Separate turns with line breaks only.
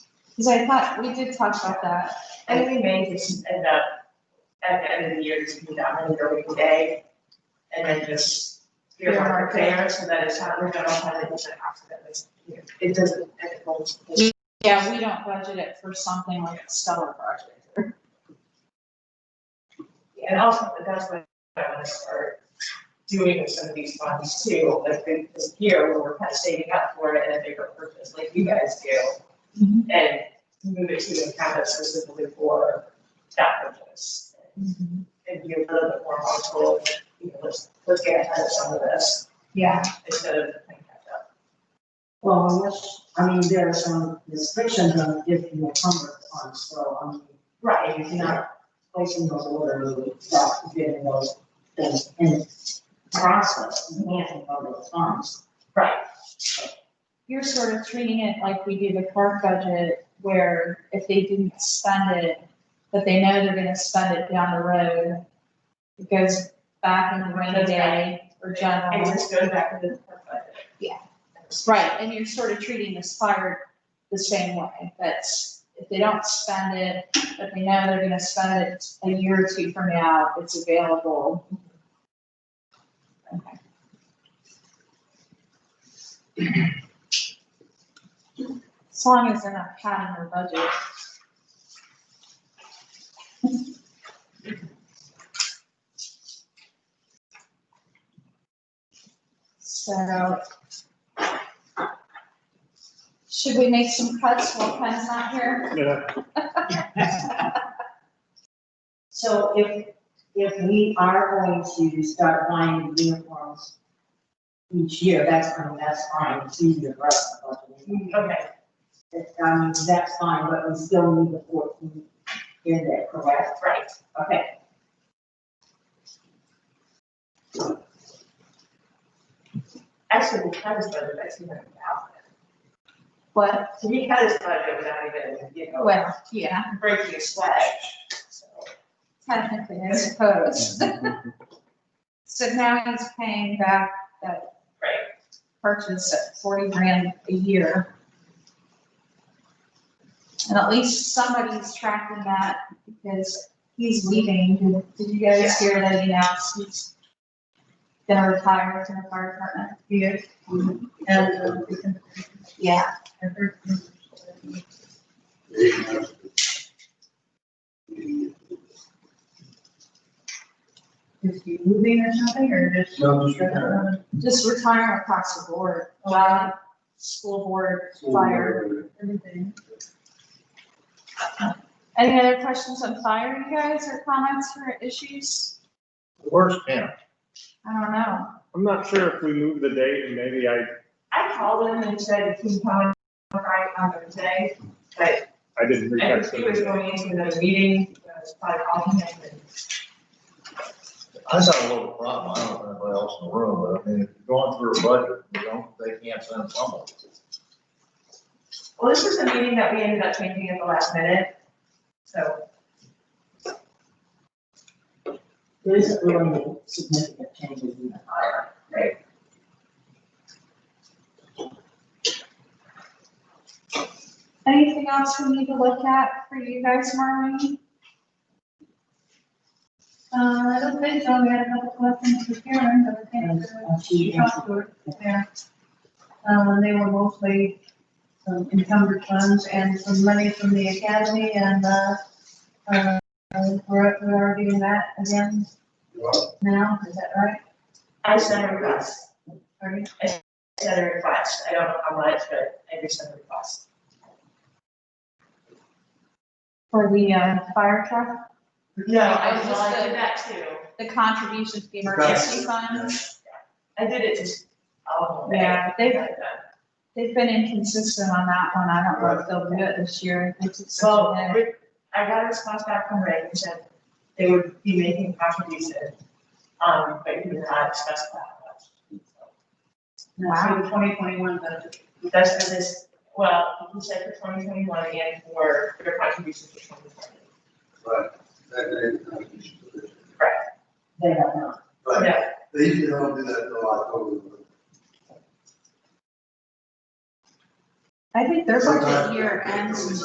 Because I thought, we did talk about that.
I think we may just end up at the end of the year, just be down in the building day. And then just earmark there, so that it's not, we don't have it, it's an accident, it doesn't, it won't.
Yeah, we don't budget it for something like a stellar project.
And also, that's what I want to start doing with some of these funds too, like this year, where we're kind of saving up for it in a bigger purpose, like you guys do. And move it to the capital specifically for that purpose. And be a little bit more thoughtful, you know, let's, let's get ahead of some of this
Yeah.
instead of playing catch up.
Well, unless, I mean, there are some restrictions on if you encumber the funds, so, I mean,
Right,
if you're not placing those orders, you stop getting those things in process, you can't encumber the funds.
right,
You're sort of treating it like we do the park budget, where if they didn't spend it, but they know they're gonna spend it down the road, it goes back in the rainy day or
and
general.
just go back to the park budget.
Yeah. Right, and you're sort of treating this fire the same way, that's, if they don't spend it, but they know they're gonna spend it a year or two from now, it's available. Okay. As long as they're not padding their budget. So, should we make some cuts while Ken's not here?
Yeah,
So if, if we are going to start buying uniforms each year, that's, I mean, that's fine, it's easier for us to budget.
Okay,
It- I mean, that's fine, but we still need the fourteen in there, correct?
right,
Okay.
actually, we cut his budget by two hundred thousand.
What,
So we cut his budget without even, you know,
well, yeah,
breaking a sweat, so.
technically, I suppose. So now he's paying back that
Right.
purchase at forty grand a year. And at least somebody's tracking that because he's leaving. Did- Did you guys hear that he announced he's gonna retire from the fire department?
Yes. And, um,
Yeah.
I heard from- Is he moving or something, or just?
No, just retiring.
Just retiring across the board, allowing school board, fire.
Everything.
Any other questions on fire, you guys, or comments or issues?
where's Pam?
I don't know.
I'm not sure if we move the date and maybe I,
I called him and said, can you come on Friday, on Thursday? But
I didn't reach
I
out
think he was
to
going into another meeting, so I was probably calling him and.
I saw a little problem, I don't know anybody else in the room, but I mean, if you're going through a budget, you don't, they can't send someone.
Well, this was a meeting that we ended up changing at the last minute, so.
There isn't really any significant changes in the fire.
Right.
Anything else we need to look at for you guys, Marlene?
Uh, I don't think so, we had a couple questions for Karen, but I
And
can't.
uh, she answered,
talked to her there. Um, and they were mostly um, encumbered funds and some money from the academy and, uh, uh, we're, we're getting that again now, is that right?
I sent a request,
Are you-
I sent a request, I don't know how much, but I did send a request.
For the, uh, fire truck,
No,
I
I
was
did
just a-
that too.
the contribution to the emergency fund?
I did it just, oh, man.
Yeah, they've, they've been inconsistent on that one. I don't know if they'll do it this year. It's just such
So,
a-
Rick- I got a response back from Ray and said they would be making contributions, um, but he did not specify how much. So,
Wow.
So the twenty twenty-one budget.
That's for this, well, he said for twenty twenty-one and for their contributions for twenty twenty.
Right, that, that,
they are not.
right,
Yeah,
they usually don't do that until October.
I think their budget
Sometimes-
year ends in